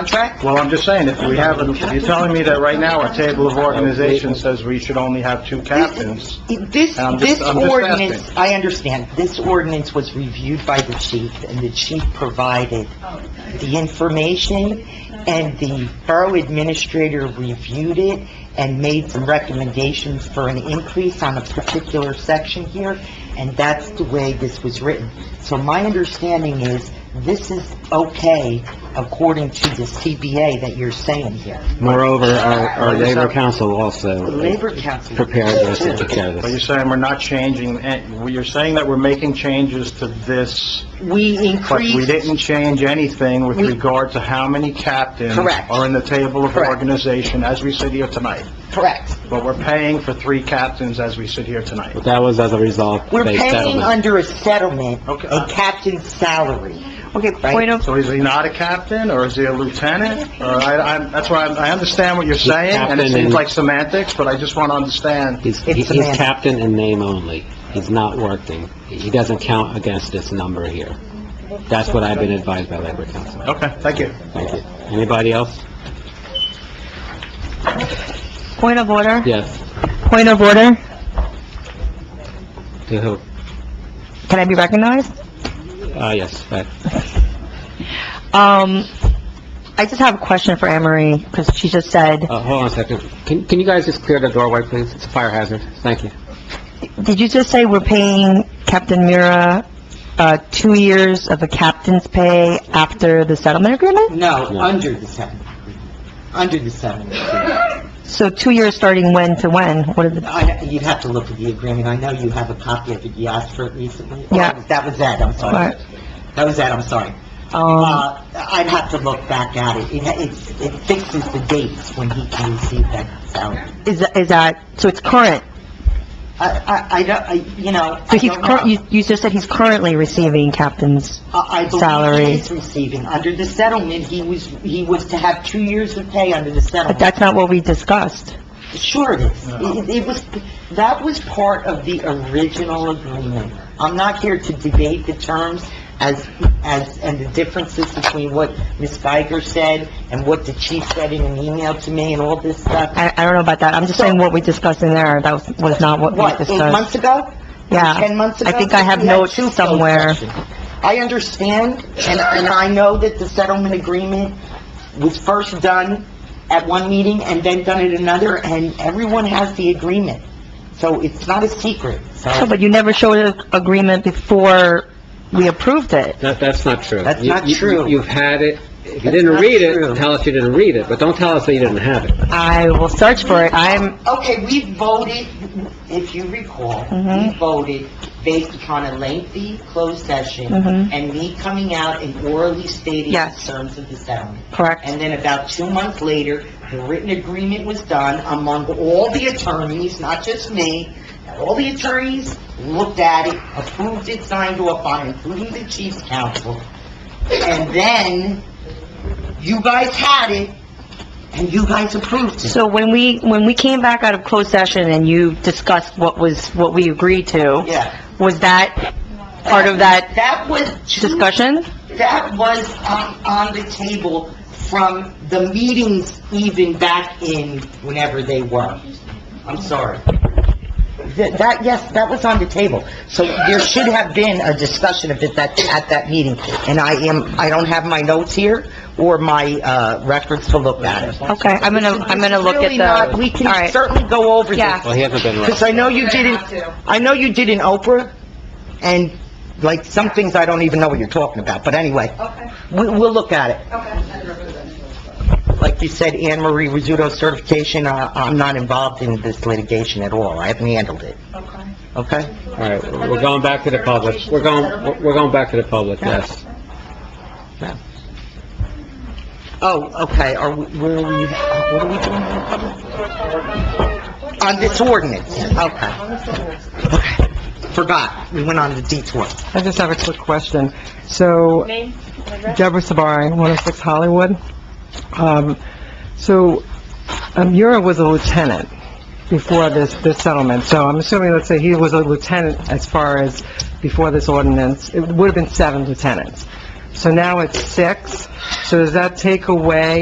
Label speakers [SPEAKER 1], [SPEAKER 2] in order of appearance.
[SPEAKER 1] contract?
[SPEAKER 2] Well, I'm just saying, if we have, you're telling me that right now, our table of organization says we should only have two captains.
[SPEAKER 1] This,
[SPEAKER 2] I'm just-
[SPEAKER 1] this
[SPEAKER 2] I'm just
[SPEAKER 1] ordinance, I understand, this ordinance was reviewed by the chief, and the chief provided the information, and the borough administrator reviewed it and made some recommendations for an increase on a particular section here, and that's the way this was written. So my understanding is, this is okay according to the CBA that you're saying here.
[SPEAKER 3] Moreover, our, our labor council also
[SPEAKER 1] Labor Council...
[SPEAKER 3] prepared this and took care of
[SPEAKER 2] But you're
[SPEAKER 3] this.
[SPEAKER 2] saying we're not changing, eh, you're saying that we're making changes to this,
[SPEAKER 1] We
[SPEAKER 2] but we
[SPEAKER 1] increased,
[SPEAKER 2] didn't change anything with
[SPEAKER 1] We-
[SPEAKER 2] regard to how many captains
[SPEAKER 1] Correct.
[SPEAKER 2] are in the table of
[SPEAKER 1] Correct.
[SPEAKER 2] organization as we sit here tonight.
[SPEAKER 1] correct.
[SPEAKER 2] But we're paying for three captains as we sit here tonight.
[SPEAKER 3] But that was as a result of
[SPEAKER 1] We're
[SPEAKER 3] a
[SPEAKER 1] paying
[SPEAKER 3] settlement.
[SPEAKER 1] under a settlement,
[SPEAKER 2] Okay.
[SPEAKER 1] a captain's salary. Okay,
[SPEAKER 4] Point of,
[SPEAKER 2] So is he not a captain, or is he a lieutenant? Or I, I, that's why I I understand what you're saying, and it
[SPEAKER 3] captain
[SPEAKER 2] seems
[SPEAKER 3] and-
[SPEAKER 2] like semantics, but I just want to understand.
[SPEAKER 3] He's, he-
[SPEAKER 1] It's a man.
[SPEAKER 3] he's captain in name only. He's not working. He doesn't count against this number here. That's what I've been advised by labor council.
[SPEAKER 2] Okay, thank you.
[SPEAKER 3] Thank you. Anybody else?
[SPEAKER 4] point of order,
[SPEAKER 3] Yes.
[SPEAKER 4] point of order.
[SPEAKER 3] To who?
[SPEAKER 4] Can I be recognized?
[SPEAKER 3] Uh, yes, but
[SPEAKER 4] Um, I just have a question for Anne Marie, because she just said,
[SPEAKER 3] Uh, hold on a second. Can, can you guys just clear the doorway, please? It's a fire hazard. Thank you.
[SPEAKER 4] did you just say we're paying Captain Mira, uh, two years of a captain's pay after the settlement agreement?
[SPEAKER 1] No,
[SPEAKER 3] No.
[SPEAKER 1] under the settlement, under the settlement. agreement.
[SPEAKER 4] So two years starting when to when? What are the,
[SPEAKER 1] I- You'd have to look at the agreement, I know you have a copy of it, you asked for it recently. Oh,
[SPEAKER 4] Yeah.
[SPEAKER 1] That was Ed, I'm sorry.
[SPEAKER 4] Right.
[SPEAKER 1] That was Ed, I'm sorry.
[SPEAKER 4] um,
[SPEAKER 1] Uh, I'd have to look back at it, it it's- it fixes the dates when he can receive that salary.
[SPEAKER 4] is, that- is that, so it's current?
[SPEAKER 1] I, I, I don't, I, you know, I
[SPEAKER 4] So he's,
[SPEAKER 1] don't
[SPEAKER 4] cur-
[SPEAKER 1] know.
[SPEAKER 4] you, you just said he's currently receiving captain's,
[SPEAKER 1] I I believe
[SPEAKER 4] Salary.
[SPEAKER 1] he is receiving, under the settlement, he was, he was to have two years of pay under the
[SPEAKER 4] but
[SPEAKER 1] settlement.
[SPEAKER 4] that's not what we discussed.
[SPEAKER 1] Sure it is. It it was, that was part of the original agreement. I'm not here to debate the terms as, as, and the differences between what Ms. Geiger said and what the chief said in an email to me and all this stuff.
[SPEAKER 4] I, I don't know about that. I'm just saying what we discussed in there, that was, was not what we
[SPEAKER 1] What,
[SPEAKER 4] discussed.
[SPEAKER 1] eight months ago?
[SPEAKER 4] Yeah.
[SPEAKER 1] 10 months ago?
[SPEAKER 4] I think I have
[SPEAKER 1] We had
[SPEAKER 4] notes
[SPEAKER 1] two closed
[SPEAKER 4] somewhere.
[SPEAKER 1] sessions. I understand, and, and I know that the settlement agreement was first done at one meeting and then done at another, and everyone has the agreement. So it's not a secret,
[SPEAKER 4] No,
[SPEAKER 1] so
[SPEAKER 4] But you never showed an agreement before we approved it.
[SPEAKER 3] That, that's not true.
[SPEAKER 1] That's
[SPEAKER 3] You-
[SPEAKER 1] not
[SPEAKER 3] you-
[SPEAKER 1] true.
[SPEAKER 3] You've had it. If you
[SPEAKER 1] That's
[SPEAKER 3] didn't
[SPEAKER 1] not
[SPEAKER 3] read
[SPEAKER 1] true.
[SPEAKER 3] it, tell us you didn't read it, but don't tell us that you didn't have it.
[SPEAKER 4] I will search for it. I'm,
[SPEAKER 1] Okay, we voted, if you recall, we
[SPEAKER 4] Mhm.
[SPEAKER 1] voted based upon a lengthy closed session
[SPEAKER 4] Mhm.
[SPEAKER 1] and me coming out and orally stating the
[SPEAKER 4] Yes.
[SPEAKER 1] terms of the settlement.
[SPEAKER 4] correct.
[SPEAKER 1] And then about two months later, the written agreement was done among all the attorneys, not just me. All the attorneys looked at it, approved it, signed off on it, including the chief's counsel. And then you guys had it, and you guys approved it.
[SPEAKER 4] So when we, when we came back out of closed session and you discussed what was, what we agreed to,
[SPEAKER 1] Yeah.
[SPEAKER 4] was that part of that
[SPEAKER 1] That was two-
[SPEAKER 4] discussion?
[SPEAKER 1] That was on, on the table from the meetings even back in whenever they were. I'm sorry. Th- That, yes, that was on the table. So there should have been a discussion of it that, at that meeting. And I am, I don't have my notes here or my, uh, records to look at.
[SPEAKER 4] Okay, I'm gonna, I'm gonna look
[SPEAKER 1] Really
[SPEAKER 4] at
[SPEAKER 1] not- We
[SPEAKER 4] the, all
[SPEAKER 1] can
[SPEAKER 4] right.
[SPEAKER 1] certainly go over this.
[SPEAKER 4] Yeah.
[SPEAKER 3] Well, he hasn't been right.
[SPEAKER 1] Because I know you did not I know you did an Oprah, and like, some things I don't even know what you're talking about, but anyway. Okay. We, we'll look at it. Okay. Like you said, Anne Marie Rizzuto certification, uh, I'm not involved in this litigation at all, I haven't handled it. Okay. Okay?
[SPEAKER 3] All right, we're going back to the public. We're going, we're going back to the public, yes.
[SPEAKER 1] Oh, okay, are we, where are we, uh, what are we doing? On this ordinance, okay. Okay. Forgot, we went on the detour.
[SPEAKER 5] I just have a quick question. So, Deborah Sabari, 106 Hollywood. Um, So, um, Yura was a lieutenant before this, this settlement, so I'm assuming, let's say he was a lieutenant as far as before this ordinance, it would have been seven lieutenants. So now it's six. So does that take away